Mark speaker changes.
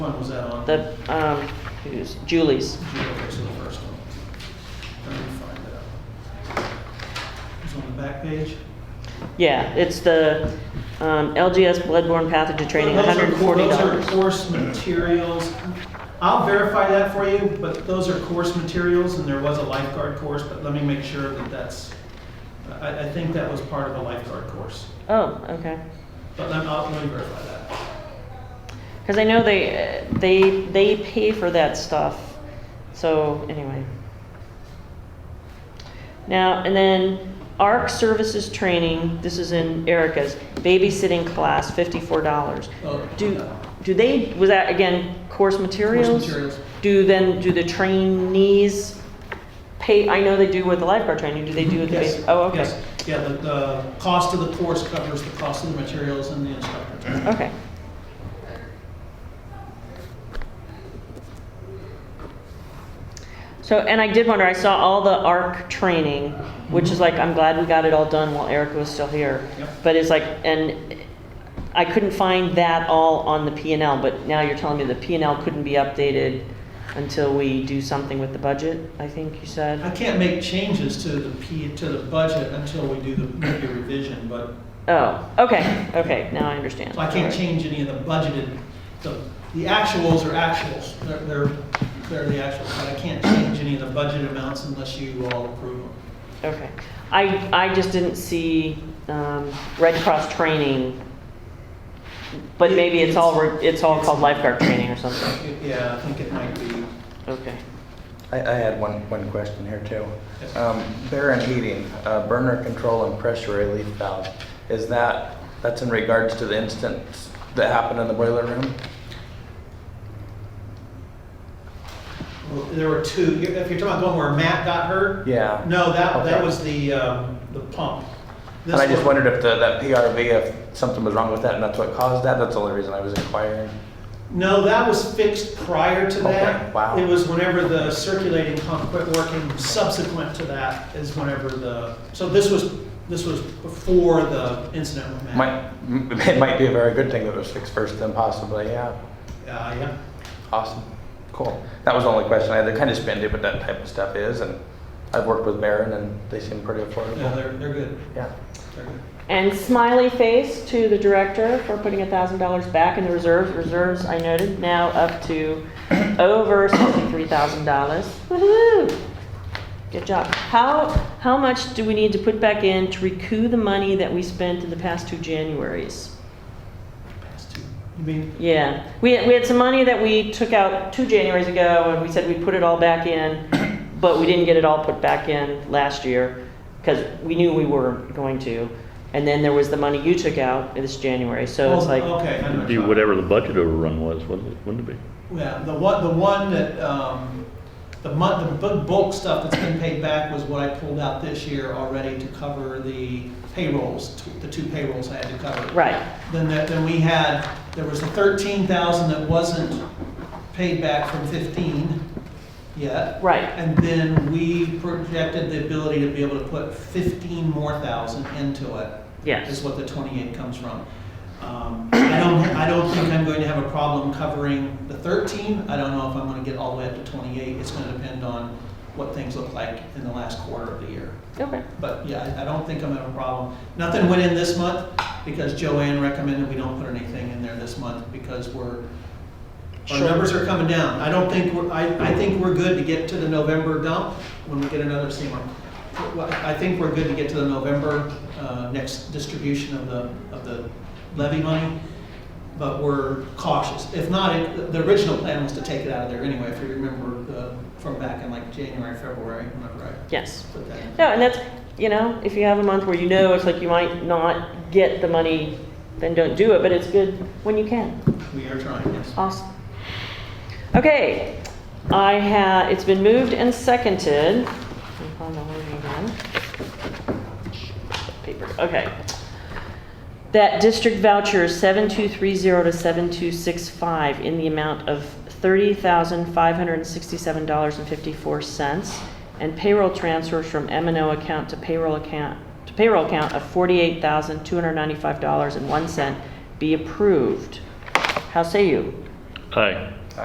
Speaker 1: was that on?
Speaker 2: The, um, who's- Julie's.
Speaker 1: Julie, okay, so the first one. Let me find it out. It's on the back page?
Speaker 2: Yeah, it's the um, LGS bloodborne pathogen training,
Speaker 1: Those are- Those are
Speaker 2: $140.
Speaker 1: course materials. I'll verify that for you, but those are course materials, and there was a lifeguard course, but let me make sure that that's, I, I think that was part of a lifeguard course.
Speaker 2: Oh, okay.
Speaker 1: But let, I'll, let me verify that.
Speaker 2: Because I know they, they, they pay for that stuff. So, anyway. Now, and then ARC services training, this is in Erica's, babysitting class, $54.
Speaker 1: Oh,
Speaker 2: Do,
Speaker 1: uh,
Speaker 2: do they, was that again, course materials?
Speaker 1: materials.
Speaker 2: Do then, do the trainees pay, I know they do with the lifeguard training, do they do with the?
Speaker 1: Yes.
Speaker 2: base- Oh, okay.
Speaker 1: yes. Yeah, the, the cost of the course covers the cost of the materials and the instructor.
Speaker 2: Okay. So, and I did wonder, I saw all the ARC training, which is like, I'm glad we got it all done while Erica was still here.
Speaker 1: Mm-hmm. Yep.
Speaker 2: But it's like, and I couldn't find that all on the P and L, but now you're telling me the P and L couldn't be updated until we do something with the budget, I think you
Speaker 1: I
Speaker 2: said?
Speaker 1: can't make changes to the P, to the budget until we do the, maybe revision, but
Speaker 2: Oh, okay, okay, now I understand.
Speaker 1: So I
Speaker 2: All
Speaker 1: can't
Speaker 2: right.
Speaker 1: change any of the budgeted, the, the actuals are actuals, they're, they're, they're the actuals, but I can't change any of the budget amounts unless you all approve them.
Speaker 2: Okay. I, I just didn't see um, Red Cross training, but maybe it's all, re- it's all called lifeguard training or something.
Speaker 1: Yeah, I think it might be,
Speaker 2: Okay.
Speaker 3: I, I had one, one question here too.
Speaker 1: Yes.
Speaker 3: Um, Bear and heating, uh, burner control and pressure relief valve, is that, that's in regards to the incident that happened in the boiler room?
Speaker 1: well, there were two, if you're talking about the one where Matt got hurt?
Speaker 3: Yeah.
Speaker 1: No, that, that
Speaker 3: Okay.
Speaker 1: was the, um, the pump.
Speaker 3: And I just
Speaker 1: This one-
Speaker 3: wondered if the, that PRV, if something was wrong with that and that's what caused that, that's the only reason I was inquiring.
Speaker 1: No, that was fixed prior to
Speaker 3: Okay,
Speaker 1: that.
Speaker 3: wow.
Speaker 1: It was whenever the circulating pump quit working, subsequent to that is whenever the, so this was, this was before the incident with Matt.
Speaker 3: Might, m- it might be a very good thing that it was fixed first then possibly, yeah.
Speaker 1: Uh, yeah.
Speaker 3: Awesome, cool. That was the only question I had, they're kind of spendy, but that type of stuff is and I've worked with Baron and they seem pretty
Speaker 1: No,
Speaker 3: affordable.
Speaker 1: they're, they're good.
Speaker 3: Yeah.
Speaker 1: They're good.
Speaker 2: And smiley face to the director for putting a thousand dollars back in the reserves. Reserves, I noted, now up to over sixty-three thousand dollars. Woohoo! Good job. How, how much do we need to put back in to recoup the money that we spent in the past two Januaries?
Speaker 1: Past two. You mean,
Speaker 2: Yeah, we, we had some money that we took out two Januaries ago, and we said we'd put it all back in, but we didn't get it all put back in last year, because we knew we were going to. And then there was the money you took out this January, so it's
Speaker 1: Oh,
Speaker 2: like,
Speaker 1: okay, I know
Speaker 4: It'd
Speaker 1: what
Speaker 4: be
Speaker 1: you're
Speaker 4: whatever the budget overrun was, wouldn't it, wouldn't it be?
Speaker 1: talking- Yeah, the one, the one that, um, the month, the bu- bulk stuff that's been paid back was what I pulled out this year already to cover the payrolls, t- the two payrolls I had to cover.
Speaker 2: right,
Speaker 1: Then that, then we had, there was the thirteen thousand that wasn't paid back from fifteen yet.
Speaker 2: right,
Speaker 1: And then we projected the ability to be able to put fifteen more thousand into it. is
Speaker 2: yes,
Speaker 1: what the 28 comes from. Um, I don't, I don't think I'm going to have a problem covering the 13. I don't know if I'm going to get all the way up to 28. It's going to depend on what things look like in the last quarter of the year.
Speaker 2: okay,
Speaker 1: But yeah, I- I don't think I'm going to have a problem. Nothing went in this month because Joanne recommended we don't put anything in there this month because we're, our
Speaker 2: Sure.
Speaker 1: numbers are coming down. I don't think, we're- I, I think we're good to get to the November dump when we get another CMR. Well, I think we're good to get to the November, uh, next distribution of the, of the levy money, but we're cautious. If not, it- the original plan was to take it out of there anyway, if you remember uh, from back in like January, February, whenever I
Speaker 2: yes.
Speaker 1: put that in.
Speaker 2: No, and that's, you know, if you have a month where you know it's like you might not get the money, then don't do it, but it's good when you can.
Speaker 1: We are trying, yes.
Speaker 2: Awesome. Okay, I ha it's been moved and seconded. Let me find the wording again. Paper, okay. That district voucher 7230 to 7265 in the amount of $30,567.54 and payroll transfers from m and O account to payroll account, to payroll account of $48,295.01 be approved. How say you?
Speaker 4: Aye.